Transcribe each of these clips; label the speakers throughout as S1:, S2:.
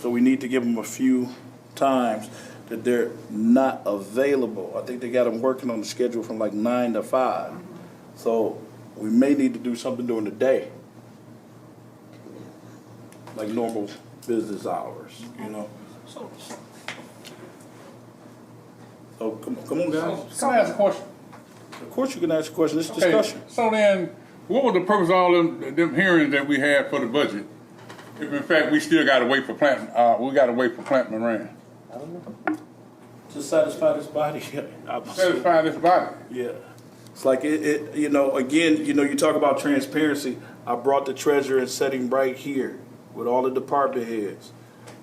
S1: So we need to give them a few times that they're not available. I think they got them working on the schedule from like nine to five. So we may need to do something during the day. Like normal business hours, you know?
S2: So, so-
S1: So come, come on,
S2: so,
S1: guys.
S2: can I ask a question?
S1: Of course you can ask a question. It's
S2: Okay,
S1: discussion.
S2: So then, what was the purpose of all them, them hearings that we had for the budget? If in fact, we still gotta wait for Plant, uh, we gotta wait for Plant Moran.
S1: To satisfy this body. I-
S2: Satisfy this body.
S1: Yeah. It's like it, it, you know, again, you know, you talk about transparency. I brought the treasurer and set him right here with all the department heads,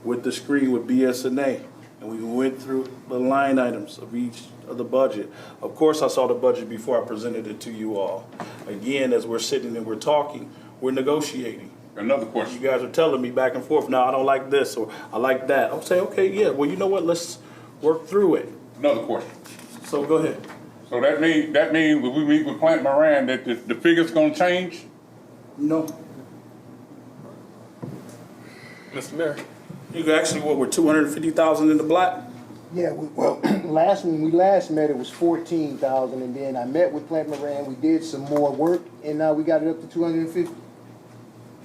S1: with the screen with BSNA. And we went through the line items of each of the budget. Of course, I saw the budget before I presented it to you all. Again, as we're sitting and we're talking, we're negotiating.
S2: Another
S1: You
S2: question.
S1: guys are telling me back and forth, no, I don't like this, or I like that. I'll say, okay, yeah, well, you know what, let's work through it.
S2: Another question.
S1: So go ahead.
S2: So that mean, that means when we meet with Plant Moran, that the, the figure's gonna change?
S1: No.
S3: Mr. Mayor.
S1: You could actually, what, we're two hundred and fifty thousand in the black?
S4: Yeah, we- well, last, when we last met, it was fourteen thousand, and then I met with Plant Moran, we did some more work, and now we got it up to two hundred and fifty.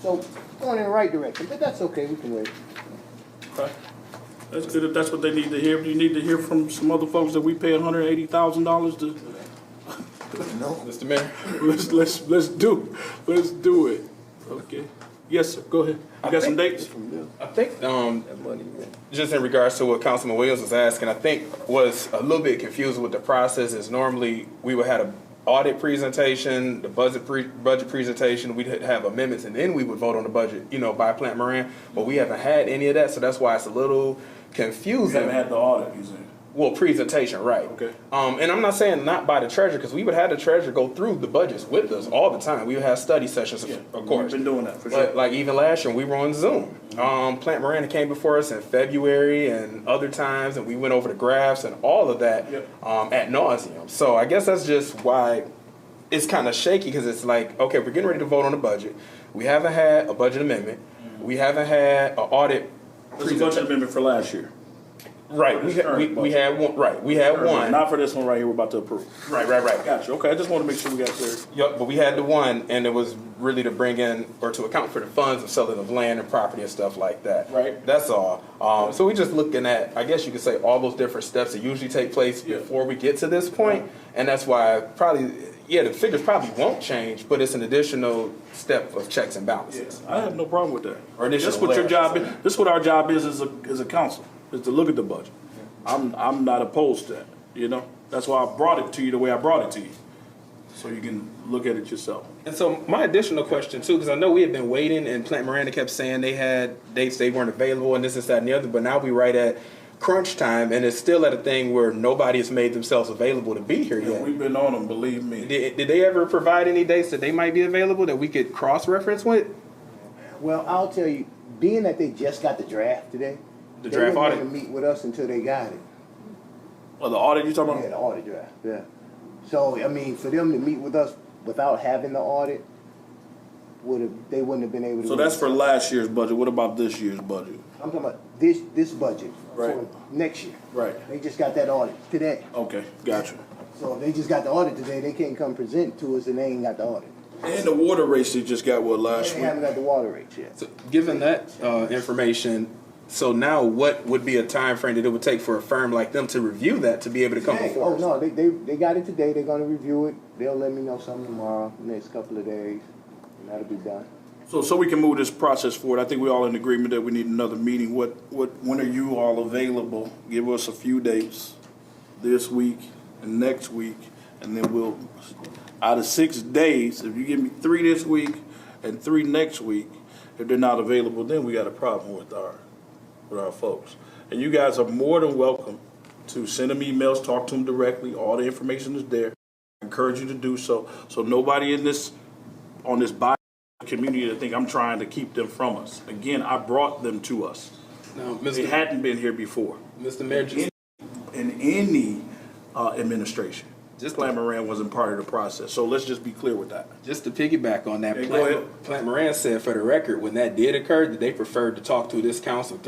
S4: So, going in the right direction, but that's okay, we can wait.
S1: Okay. That's good, if that's what they need to hear, you need to hear from some other folks that we pay hundred and eighty thousand dollars to,
S3: Mr. Mayor.
S1: let's, let's, let's do, let's do it. Okay, yes, sir, go ahead, you got some dates?
S3: I think, um, just in regards to what Councilman Williams was asking, I think was a little bit confused with the process is normally we would have an audit presentation, the budget pre, budget presentation, we'd have amendments, and then we would vote on the budget, you know, by Plant Moran, but we haven't had any of that, so that's why it's a little confusing.
S1: the audit, you said.
S3: Well, presentation, right.
S1: Okay.
S3: Um, and I'm not saying not by the treasurer, because we would have the treasurer go through the budgets with us all the time. We would have study sessions, of-
S1: Yeah,
S3: of course.
S1: we've been doing that, for
S3: But,
S1: sure.
S3: Like even last year, we were on Zoom. Um, Plant Miranda came before us in February and other times, and we went over the graphs and all of that
S1: Yep.
S3: um, at nauseum. So I guess that's just why it's kind of shaky because it's like, okay, we're getting ready to vote on the budget. We haven't had a budget amendment. We haven't had an audit.
S1: There's a budget amendment for last year.
S3: Right.
S1: for
S3: We,
S1: this
S3: ha- we,
S1: current
S3: we had one. Right. We had one.
S1: Not for this one right here we're about to approve.
S3: Right. Right. Right.
S1: Got you, okay, I just wanna make sure we got clear.
S3: Yep, but we had the one, and it was really to bring in or to account for the funds of selling of land and property and stuff like that.
S1: Right.
S3: That's all. Um, so we just looking at, I guess you could say, all those different steps that usually take place
S1: Yeah.
S3: before we get to this point, and that's why probably, yeah, the figures probably won't change, but it's an additional step of checks and balances.
S1: I have no problem with that.
S3: Or additional
S1: That's what your
S3: layers.
S1: job is, that's what our job is as a, as a council, is to look at the budget. I'm, I'm not opposed to that, you know? That's why I brought it to you the way I brought it to you, so you can look at it yourself.
S3: And so my additional question too, because I know we had been waiting, and Plant Miranda kept saying they had dates they weren't available, and this, this, that, and the other. But now we right at crunch time, and it's still at a thing where nobody has made themselves available to be here
S1: And
S3: yet.
S1: we've been on them, believe me.
S3: Did, did they ever provide any dates that they might be available that we could cross reference with?
S4: Well, I'll tell you, being that they just got the draft today.
S3: The draft
S4: They
S3: audit?
S4: didn't wanna meet with us until they got it,
S1: Well, the audit you
S4: yeah,
S1: talking
S4: the
S1: about?
S4: audit draft, yeah. So, I mean, for them to meet with us without having the audit, would've, they wouldn't have been able to.
S1: So that's for last year's budget, what about this year's budget?
S4: I'm talking about this, this budget.
S1: Right.
S4: for Next year.
S1: Right.
S4: They just got that audit today.
S1: Okay, gotcha.
S4: So if they just got the audit today, they can't come present to us and they ain't got the audit.
S1: And the water rates they just got, what,
S4: They
S1: last week?
S4: haven't got the water rates yet.
S3: Uh, So, given that uh, information, so now what would be a time frame that it would take for a firm like them to review that to be able to come
S4: Hey,
S3: before?
S4: Oh,
S3: us?
S4: no, they, they, they got it today, they're gonna review it, they'll let me know something tomorrow, next couple of days, and that'll be done.
S1: So, so we can move this process forward, I think we all in agreement that we need another meeting, what, what, when are you all available? Give us a few dates, this week and next week, and then we'll, out of six days, if you give me three this week and three next week, if they're not available, then we got a problem with our, with our folks. And you guys are more than welcome to send them emails, talk to them directly, all the information is there. Encourage you to do so, so nobody in this, on this body community to think I'm trying to keep them from us. Again, I brought them to us.
S3: No,
S1: They
S3: Mr.
S1: hadn't been here before
S3: Mr. Mayor, just-
S1: in any uh, administration.
S3: Just-
S1: Plan Moran wasn't part of the process. So let's just be clear with that.
S3: Just to piggyback on that,
S1: Yeah, go ahead.
S3: Plant, Plant Moran said for the record, when that did occur, that they preferred to talk to this council